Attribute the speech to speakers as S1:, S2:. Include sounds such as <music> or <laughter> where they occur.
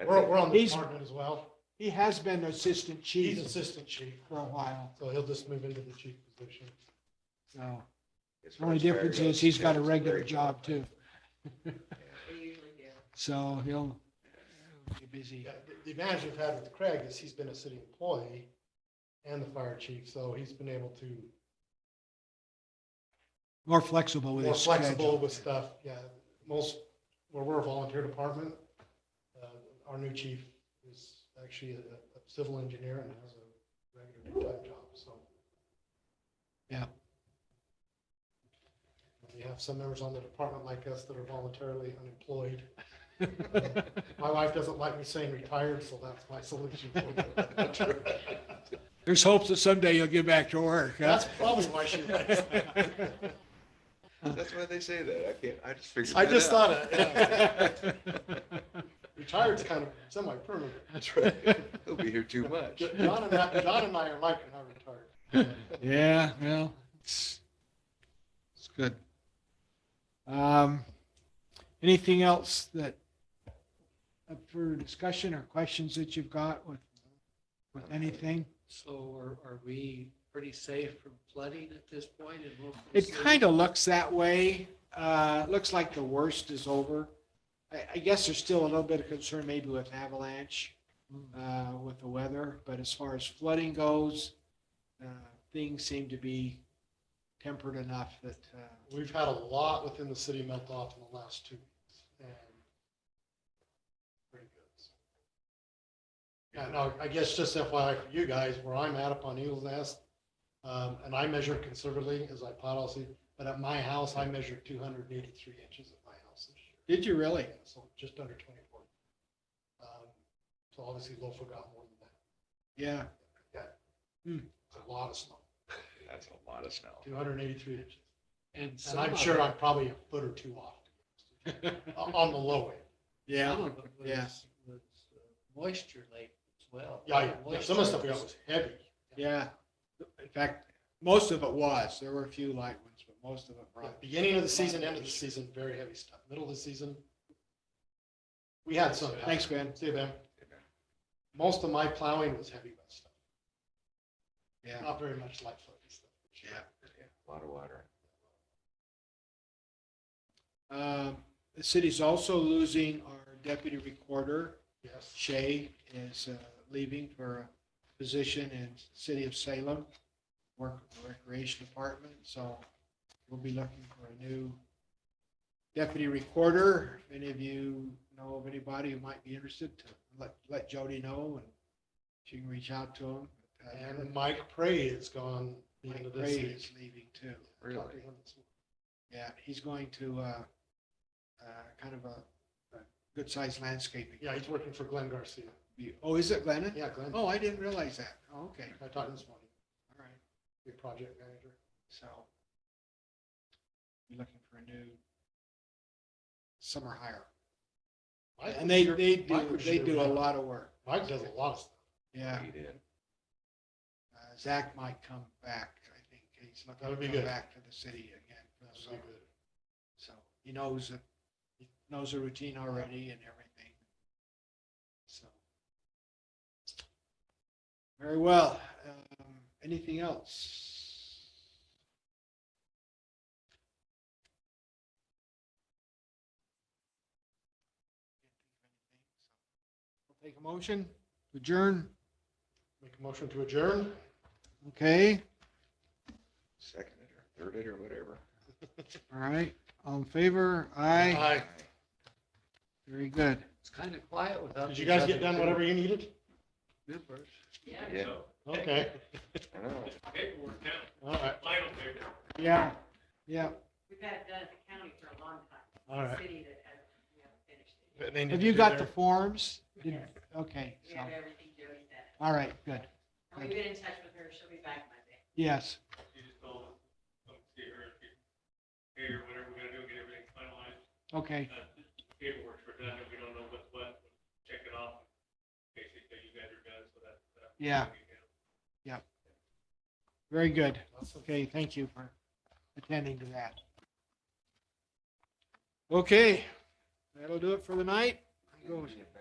S1: I
S2: We're,
S1: think-
S2: we're on the
S3: He's-
S2: department as well.
S3: He has been assistant
S2: He's
S3: chief
S2: assistant chief,
S3: for a while,
S2: so he'll just move into the chief position.
S3: so
S2: Oh,
S1: as
S3: the
S1: far
S3: only
S1: as fire
S3: difference
S1: goes,
S3: is he's got a
S1: it's
S3: regular
S1: very-
S3: job too,
S4: They usually do.
S3: <laughs> so he'll be busy.
S2: Yeah, the- The advantage we've had with Craig is he's been a city employee and the fire chief, so he's been able to
S3: More flexible with
S2: more
S3: his
S2: flexible
S3: schedule.
S2: with stuff. Yeah, most, where we're a volunteer department, uh, our new chief is actually a a civil engineer and has a regular full-time job, so.
S3: Yeah.
S2: We have some members on the department like us that are voluntarily unemployed. My wife doesn't like me saying retired, so that's my solution. for it.
S3: <laughs> There's hopes that someday you'll get back to work. huh?
S2: That's probably why she likes me.
S1: That's why they say that. I can't, I just figured.
S2: I
S1: that
S2: just
S1: out.
S2: thought it. yeah.
S3: <laughs>
S2: Retired's kind of semi-permanent.
S1: <laughs> That's right. He'll be here too much.
S2: John and I, John and I are like, we're not retired.
S3: Yeah, well, it's, it's good. Um, anything else that up for discussion or questions that you've got with, with anything?
S5: So are, are we pretty safe from flooding at this point? And we'll-
S3: It kind of looks that way. Uh, it looks like the worst is over. I, I guess there's still a little bit of concern maybe with avalanche, uh, with the weather, but as far as flooding goes, uh, things seem to be tempered enough that, uh,
S2: We've had a lot within the city melt off in the last two weeks and pretty good. Yeah, no, I guess just FYI for you guys, where I'm at up on Eagles Nest, um, and I measure conservatively as I pot all season, but at my house, I measured two hundred and eighty-three inches at my house this year.
S3: Did you really?
S2: Yeah, So just under twenty-four. Um, So obviously Lofer got more than
S3: Yeah.
S2: that. A lot of snow,
S1: That's a lot of snow.
S2: two hundred and eighty-three inches.
S5: And
S2: And
S5: some
S2: I'm
S5: of
S2: sure
S5: it-
S2: I'm probably a foot or two off
S5: <laughs>
S2: o- on the low end.
S5: Some of it
S3: Yeah.
S5: was, was uh, moisture late as well.
S2: Yeah, yeah, yeah, some of the stuff we got was heavy.
S3: Yeah. In fact, most of it was. There were a few light ones, but most of it
S2: Yeah,
S3: probably.
S2: Beginning of the season, end of the season, very heavy stuff. Middle of the season, we had some.
S3: Thanks, Ben.
S2: See you, Ben. Most of my plowing was heavy wet stuff,
S3: Yeah.
S2: not very much light footing stuff.
S3: Yeah.
S1: Yeah, A lot of water.
S3: Um, the city's also losing our deputy recorder.
S2: Yes,
S3: Shay is uh, leaving for a position in city of Salem, work with the recreation department. So we'll be looking for a new deputy recorder. If any of you know of anybody who might be interested, to let, let Jody know and she can reach out to him. Uh,
S2: and Mike Prey is gone the end
S3: Mike
S2: of this
S3: Gray
S2: season.
S3: is leaving too.
S1: Really?
S2: Talked to him this morning.
S3: Yeah, he's going to, uh, uh, kind of a, a good sized landscaping.
S2: Yeah, he's working for Glenn Garcia.
S3: You- Oh, is it Glennon?
S2: Yeah, Glenn,
S3: Oh, I didn't realize that. Oh, Okay,
S2: I talked to him this morning,
S3: all right.
S2: He's a project manager.
S3: So you're looking for a new summer hire.
S2: Mike
S3: And
S2: was
S3: they,
S2: here-
S3: they
S2: Mike
S3: do,
S2: was
S3: they
S2: here
S3: do a
S2: when I-
S3: lot of work.
S2: Mike does a lot of stuff.
S3: Yeah.
S1: He did.
S3: Uh, Zach might come back. I think he's looking
S2: That would
S3: to
S2: be
S3: come
S2: good.
S3: back to the city again for the
S2: That'd be
S3: summer.
S2: good.
S3: So he knows, it- he knows the routine already and everything. So. Very well. Um, Anything else? We'll Take a motion, adjourn,
S2: Make a motion to adjourn?
S3: okay,
S1: Second it or third it or whatever.
S3: all right, all in favor, aye,
S2: Aye.
S3: very good.
S5: It's kind of quiet without.
S2: Did you
S5: these
S2: guys
S5: other
S2: get done
S5: two
S2: whatever you needed?
S5: members.
S1: Yeah.
S2: Okay,
S1: I know.
S2: all right,
S3: Yeah, yeah.
S4: We've had it done at the county for a long time.
S2: all right.
S4: City that has, we haven't finished it.
S2: But they need
S3: Have
S2: to
S3: you
S2: do
S3: got the
S2: their-
S3: forms? Did-
S4: Yes.
S3: Okay,
S4: We
S3: so,
S4: have everything Jody said.
S3: all right, good.
S4: And we've been in touch with her. She'll be back Monday.
S3: Yes,
S6: You just told us, come see her, if you, here, whatever we gotta do, get everything finalized.
S3: okay,
S6: Uh, Paperwork's for done, and we don't know what's what, check it off. Basically, you guys are done, so that's. that's-
S3: Yeah. very good. Okay, thank you for attending to that. Okay, that'll do it for the night. Go.
S1: Get back